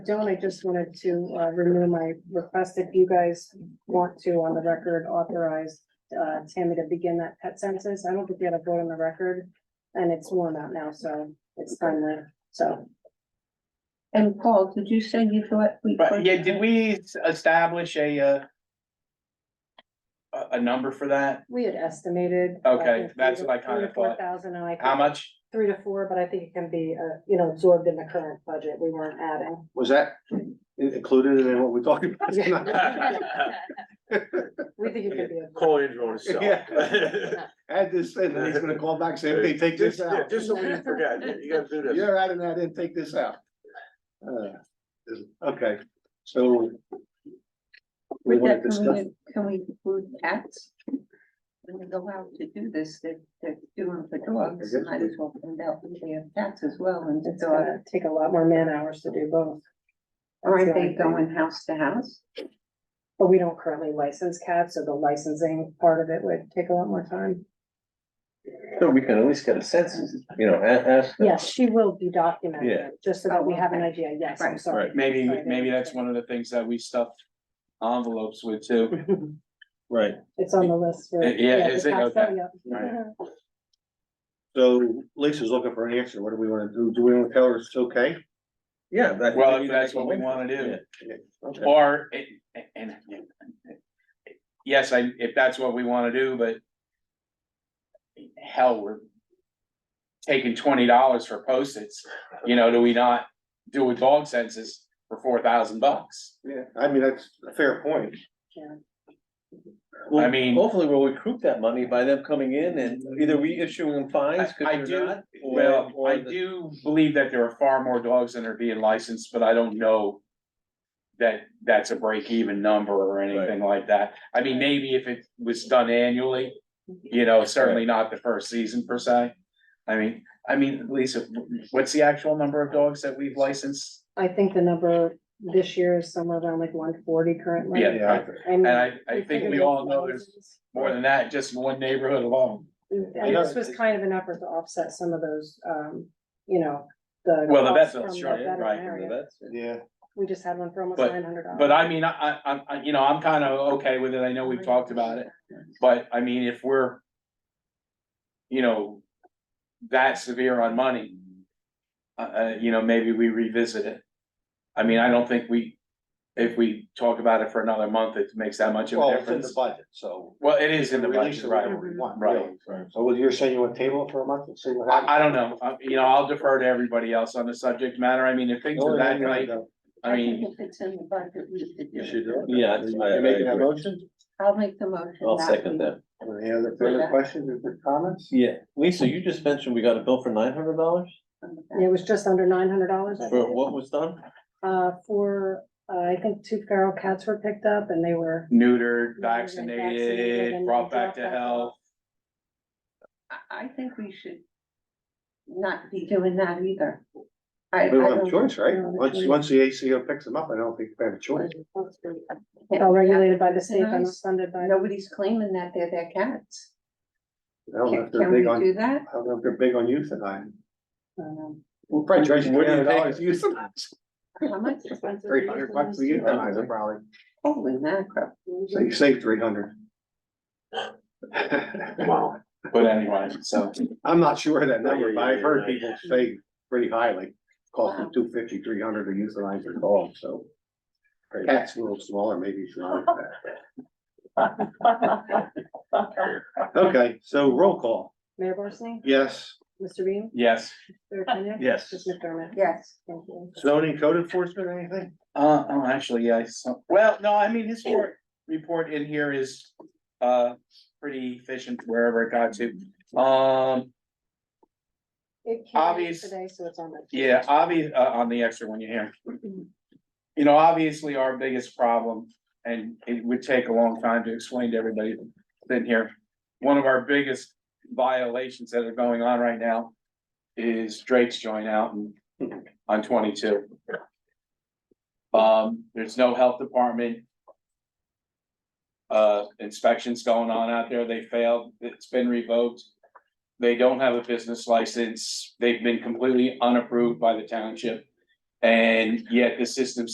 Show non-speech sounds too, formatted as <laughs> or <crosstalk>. don't, I just wanted to uh, renew my request if you guys want to, on the record, authorize uh, Tammy to begin that pet census. I don't think we had a vote on the record, and it's worn out now, so it's timely, so. And Paul, did you say you thought we? But yeah, did we s- establish a, uh, a, a number for that? We had estimated. uh, Okay, that's what I kinda Four thought. thousand, and I, How think much? three to four, but I think it can be, uh, you know, absorbed in the current budget, we weren't adding. Was that in- included in what we're talking <laughs> about? tonight? We think it could be. absorbed. Call in your own self. <laughs> Yeah. Add this in, and he's gonna call back, say, hey, take this Yeah, out. Just so we didn't forget, you gotta do this. You're adding that in, take this out. Uh, is- Okay, so. We With that, want to discuss, can we, can we include cats? When we go out to do this, they're, they're doing for dogs, guess might we- as well find out if we have cats as well and the It's dog. gonna take a lot more man hours to do both. That's Aren't the they only thing. going house to house? But we don't currently license cats, so the licensing part of it would take a lot more time. So we can at least get a sense, you know, a- ask. them. Yes, she will be Yeah. documented, just so that we have an idea, yes, I'm Right. sorry. Maybe, maybe that's one of the things that we stuff envelopes with too. right, <laughs> It's on the list. for- Yeah, is the it? cats, Okay. yeah. Right. so Lisa's looking for an answer, what do we wanna do, do we wanna tell her it's okay? Yeah. that- Well, if that's what we wanna do. Okay. Or, it- and, yes, I, if that's what we wanna do, but hell, we're taking twenty dollars for post-its, you know, do we not do a dog census for four thousand bucks? Yeah, I mean, that's a fair point. I mean- Hopefully we'll recruit that money by them coming in and either we issuing them fines. 'cause I- I they're do- not, or- Well, or I the- do believe that there are far more dogs than are being licensed, but I don't know that that's a break-even number or anything like that. I mean, maybe if it was done annually, you know, certainly not the first season per se. I mean, I mean, Lisa, what's the actual number of dogs that we've licensed? I think the number this year is somewhere around like one forty currently. Yeah. Yeah, And I- we I think figured we it's all know there's- thousands. More than that, just in one neighborhood alone. Mm, And this was kind of an effort to offset some of those, um, you know, the. Well, the costs vet bill, from the sure, yeah, right, veterinarian. That's- yeah. We just had one for almost But- nine hundred dollars. But I mean, I, I, I, you know, I'm kind of okay with it. I know we've talked about it. But I mean, if we're. You know. That severe on money. Uh, uh, you know, maybe we revisit it. I mean, I don't think we. If we talk about it for another month, it makes that much of Well, a it's in the difference. budget, so. Well, it is in the Release budget, it right? whenever Mm-hmm. we want, Right. really. So what you're saying you want table it for a month and see what happens? I, I don't know. Uh, you know, I'll defer to everybody else on the subject matter. I mean, if things are that night, I mean, think If it's in the budget, we should You do it. should do it. Yeah, I- I- I You're making that agree. motion? I'll make the motion. I'll that second we- that. Any other further questions or comments? Yeah, Lisa, you just mentioned we got a bill for nine hundred dollars It was just under nine hundred dollars. for what was done? Uh, for, uh, I think two feral cats were picked up and they were. neutered, Neutered, vaccinated, vaccinated, and brought back to dropped back health. I, I think we should not be doing that either. I, I We don't have don't. a choice, right? Once, once the ACO picks them up, I don't think we have a choice. All regulated by the state and funded by. Nobody's claiming that they're their cats. I don't know Can if they're can we big on, do that? I don't know if they're big on euthanaline. um, We'll probably charge you What three do you hundred dollars to euthanize. How much? <laughs> Three hundred bucks for euthanize, them, probably. Holy mackerel. So you save three hundred. <laughs> Wow. But anyway, so. I'm not sure of that number, Yeah, but I've yeah, heard yeah. people say pretty highly, cost them Wow. two fifty, three hundred to euthanize their dog, so. Cat's a little smaller, maybe it's not. <laughs> Okay, so roll call, Mayor Barsney? yes, Mr. Beam? Yes. Mayor Kenyon? Yes. Mr. McDermott? Yes. Thank you. zoning code enforcement, anything? Uh, oh, actually, yeah, I saw well, no, I mean, his report, report in here is, uh, pretty efficient wherever it got to. Um, It came in Obvious- Today, so it's on. the- yeah, obvious, uh, on the extra one you hear. You know, obviously, our biggest problem, and it would take a long time to explain to everybody in here. One of our biggest violations that are going on right now is Drake's joint out and on twenty-two. Um, there's no health department. Uh, inspections going on out there, they failed, it's been revoked. They don't have a business license, they've been completely unapproved by the township. And yet the system